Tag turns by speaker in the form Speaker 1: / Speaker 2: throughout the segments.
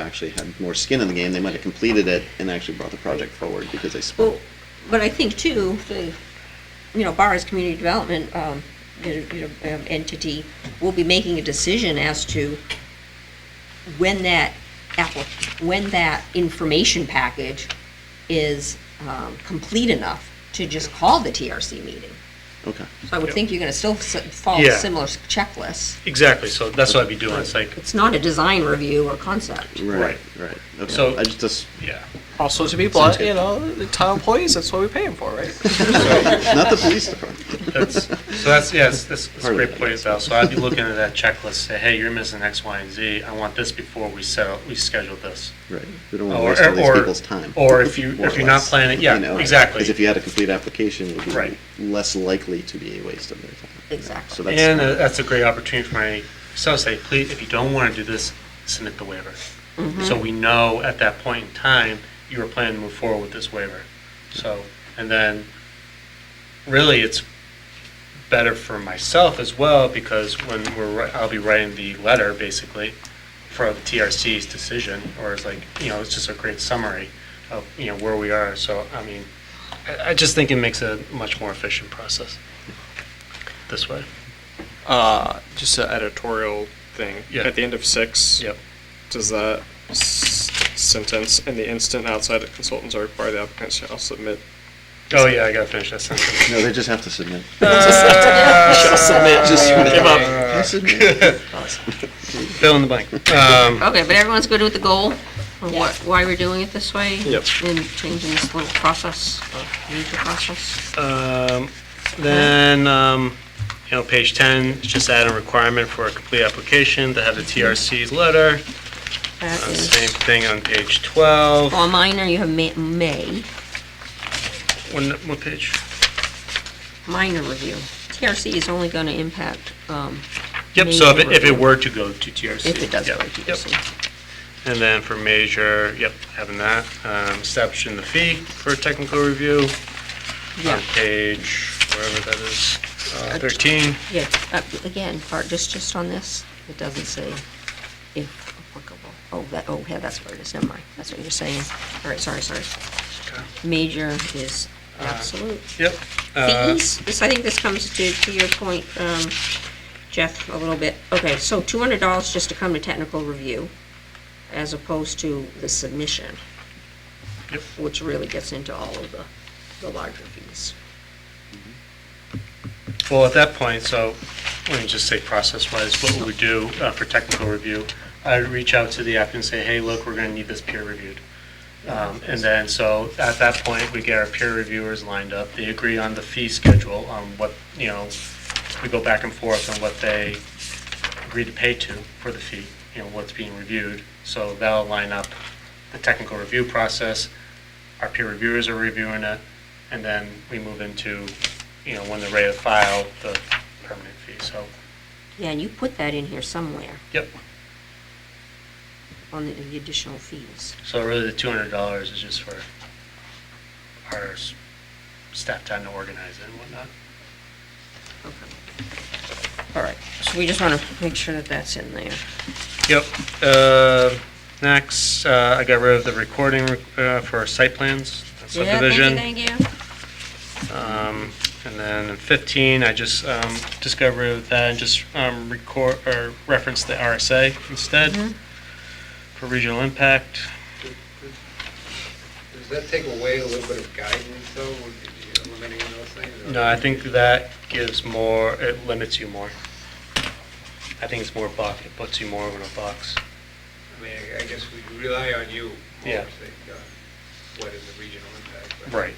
Speaker 1: actually had more skin in the game, they might have completed it and actually brought the project forward because they
Speaker 2: Well,
Speaker 1: spent.
Speaker 2: but I think too, the, you know, Bar's Community Development, um, you know, you know, um, entity will be making a decision as to when that appli- when that information package is, um, complete enough to just call the TRC meeting.
Speaker 1: Okay,
Speaker 2: So I would
Speaker 3: Yep.
Speaker 2: think you're gonna still s- follow
Speaker 3: Yeah.
Speaker 2: similar checklists.
Speaker 3: Exactly, so that's what I'd be doing, it's like,
Speaker 2: It's not a design review or concept.
Speaker 1: right,
Speaker 3: Right.
Speaker 1: right. Okay.
Speaker 3: So-
Speaker 1: I just- just,
Speaker 3: yeah.
Speaker 4: Also, to be blunt, you know, the town employees, that's what we pay them for, right?
Speaker 1: not the police department.
Speaker 3: That's, so that's, yeah, that's, that's that's a
Speaker 1: Part of
Speaker 3: great
Speaker 1: it.
Speaker 3: point as well. So I'd be looking at that checklist, say, hey, you're missing X, Y, and Z. I want this before we settle, we schedule this.
Speaker 1: Right, we don't want to
Speaker 3: Or,
Speaker 1: waste all these
Speaker 3: or-
Speaker 1: people's time.
Speaker 3: or if you,
Speaker 1: more
Speaker 3: if
Speaker 1: or
Speaker 3: you're not
Speaker 1: less,
Speaker 3: planning,
Speaker 1: you
Speaker 3: yeah,
Speaker 1: know?
Speaker 3: exactly.
Speaker 1: Because if you had a complete application, it would
Speaker 3: Right.
Speaker 1: be less likely to be a waste of their time.
Speaker 2: Exactly.
Speaker 1: So that's,
Speaker 3: And uh, that's a great opportunity for my, so say, please, if you don't want to do this, submit the waiver. So we know at that point in time, you were planning to move forward with this waiver. So, and then, really, it's better for myself as well, because when we're, wri- I'll be writing the letter, basically, for the TRC's decision, or it's like, you know, it's just a great summary of, you know, where we are. So, I mean, I, I just think it makes a much more efficient process this way.
Speaker 4: Uh, just an editorial thing.
Speaker 3: Yeah.
Speaker 4: At the end of six,
Speaker 3: Yep.
Speaker 4: does that s- sentence, in the instant outside of consultants are required, the applicant shall submit.
Speaker 3: Oh, yeah, I gotta finish that sentence.
Speaker 1: no, they just have to submit.
Speaker 3: Uh,
Speaker 4: shall submit.
Speaker 1: Just
Speaker 4: give up.
Speaker 1: Just submit.
Speaker 3: Fill in the blank. Um,
Speaker 2: Okay, but everyone's good with the goal, or what, why we're doing it this way?
Speaker 4: Yep.
Speaker 2: And changing this little process, or major process?
Speaker 3: um, Then, um, you know, page 10, it's just add a requirement for a complete application to have the TRC's letter.
Speaker 2: That
Speaker 3: Uh,
Speaker 2: is,
Speaker 3: Same thing on page 12.
Speaker 2: well, minor, you have ma- may,
Speaker 3: One, what page?
Speaker 2: minor review. TRC is only gonna impact, um,
Speaker 3: Yep, so if it- if
Speaker 2: Major
Speaker 3: it were to go to TRC.
Speaker 2: if it does go
Speaker 3: yep,
Speaker 2: to
Speaker 3: yep.
Speaker 2: TRC.
Speaker 3: And then for major, yep, having that, um, establishing the fee for technical review on
Speaker 2: Yeah,
Speaker 3: page, wherever that is, uh, 13.
Speaker 2: yeah, uh, again, part, just, just on this, it doesn't say if applicable. Oh, that, oh, yeah, that's where it is, never mind, that's what you're saying. All right, sorry, sorry.
Speaker 3: Okay.
Speaker 2: Major is absolute.
Speaker 3: Yep. uh,
Speaker 2: fees, this, I think this comes to, to your point, um, Jeff, a little bit. Okay, so two hundred dollars just to come to technical review, as opposed to the submission.
Speaker 3: Yep.
Speaker 2: Which really gets into all of the, the larger fees.
Speaker 3: Well, at that point, so, let me just say process-wise, what would we do uh, for technical review? I'd reach out to the applicant and say, hey, look, we're gonna need this peer reviewed. Um, And then, so, at that point, we get our peer reviewers lined up, they agree on the fee schedule, on what, you know, we go back and forth on what they agree to pay to for the fee, you know, what's being reviewed. So that'll line up the technical review process, our peer reviewers are reviewing it, and then we move into, you know, when they're ready to file the permanent fee, so,
Speaker 2: Yeah, and you put that in here somewhere,
Speaker 3: yep.
Speaker 2: on the the additional fees.
Speaker 3: So really, the two hundred dollars is just for our s- staff time to organize it and whatnot.
Speaker 2: Okay. All right, so we just wanna make sure that that's in there.
Speaker 3: Yep, uh, next, uh, I got rid of the recording, uh, for site plans, subdivision.
Speaker 2: Yeah, thank you, thank you.
Speaker 3: Um, And then in 15, I just um, discovered that and just um, record, or reference the RSA instead for regional impact.
Speaker 5: Does that take away a little bit of guidance, though, when you're eliminating those things? or-
Speaker 3: No, I think that gives more, it limits you more. I think it's more box, it puts you more in a box.
Speaker 5: I mean, I- I guess we rely on you
Speaker 3: Yeah.
Speaker 5: more, say, uh, what is the regional impact? but, uh,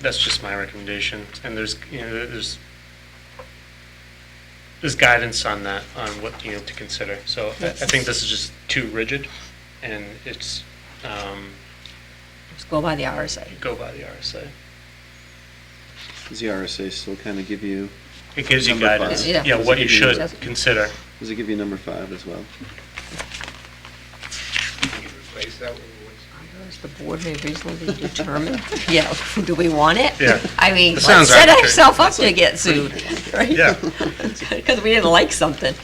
Speaker 3: That's just my recommendation. And there's, you know, there's, there's guidance on that, on what, you know, to consider. So I I think this is just too rigid and it's, um,
Speaker 2: Just go by the RSA.
Speaker 3: go by the RSA.
Speaker 1: Does the RSA still kind of give you,
Speaker 3: It gives you
Speaker 1: Number five.
Speaker 3: guidance,
Speaker 2: Yeah.
Speaker 3: yeah, what you should
Speaker 2: Doesn't-
Speaker 3: consider.
Speaker 1: does it give you number five as well?
Speaker 5: Can you replace that with
Speaker 2: Does
Speaker 5: what's?
Speaker 2: the board may reasonably determine, yeah, do we want it?
Speaker 3: Yeah.
Speaker 2: I mean,
Speaker 3: That
Speaker 2: let's
Speaker 3: sounds
Speaker 2: set
Speaker 3: arbitrary.
Speaker 2: ourselves up to get sued, right?
Speaker 3: Yeah.
Speaker 2: Because we didn't like something.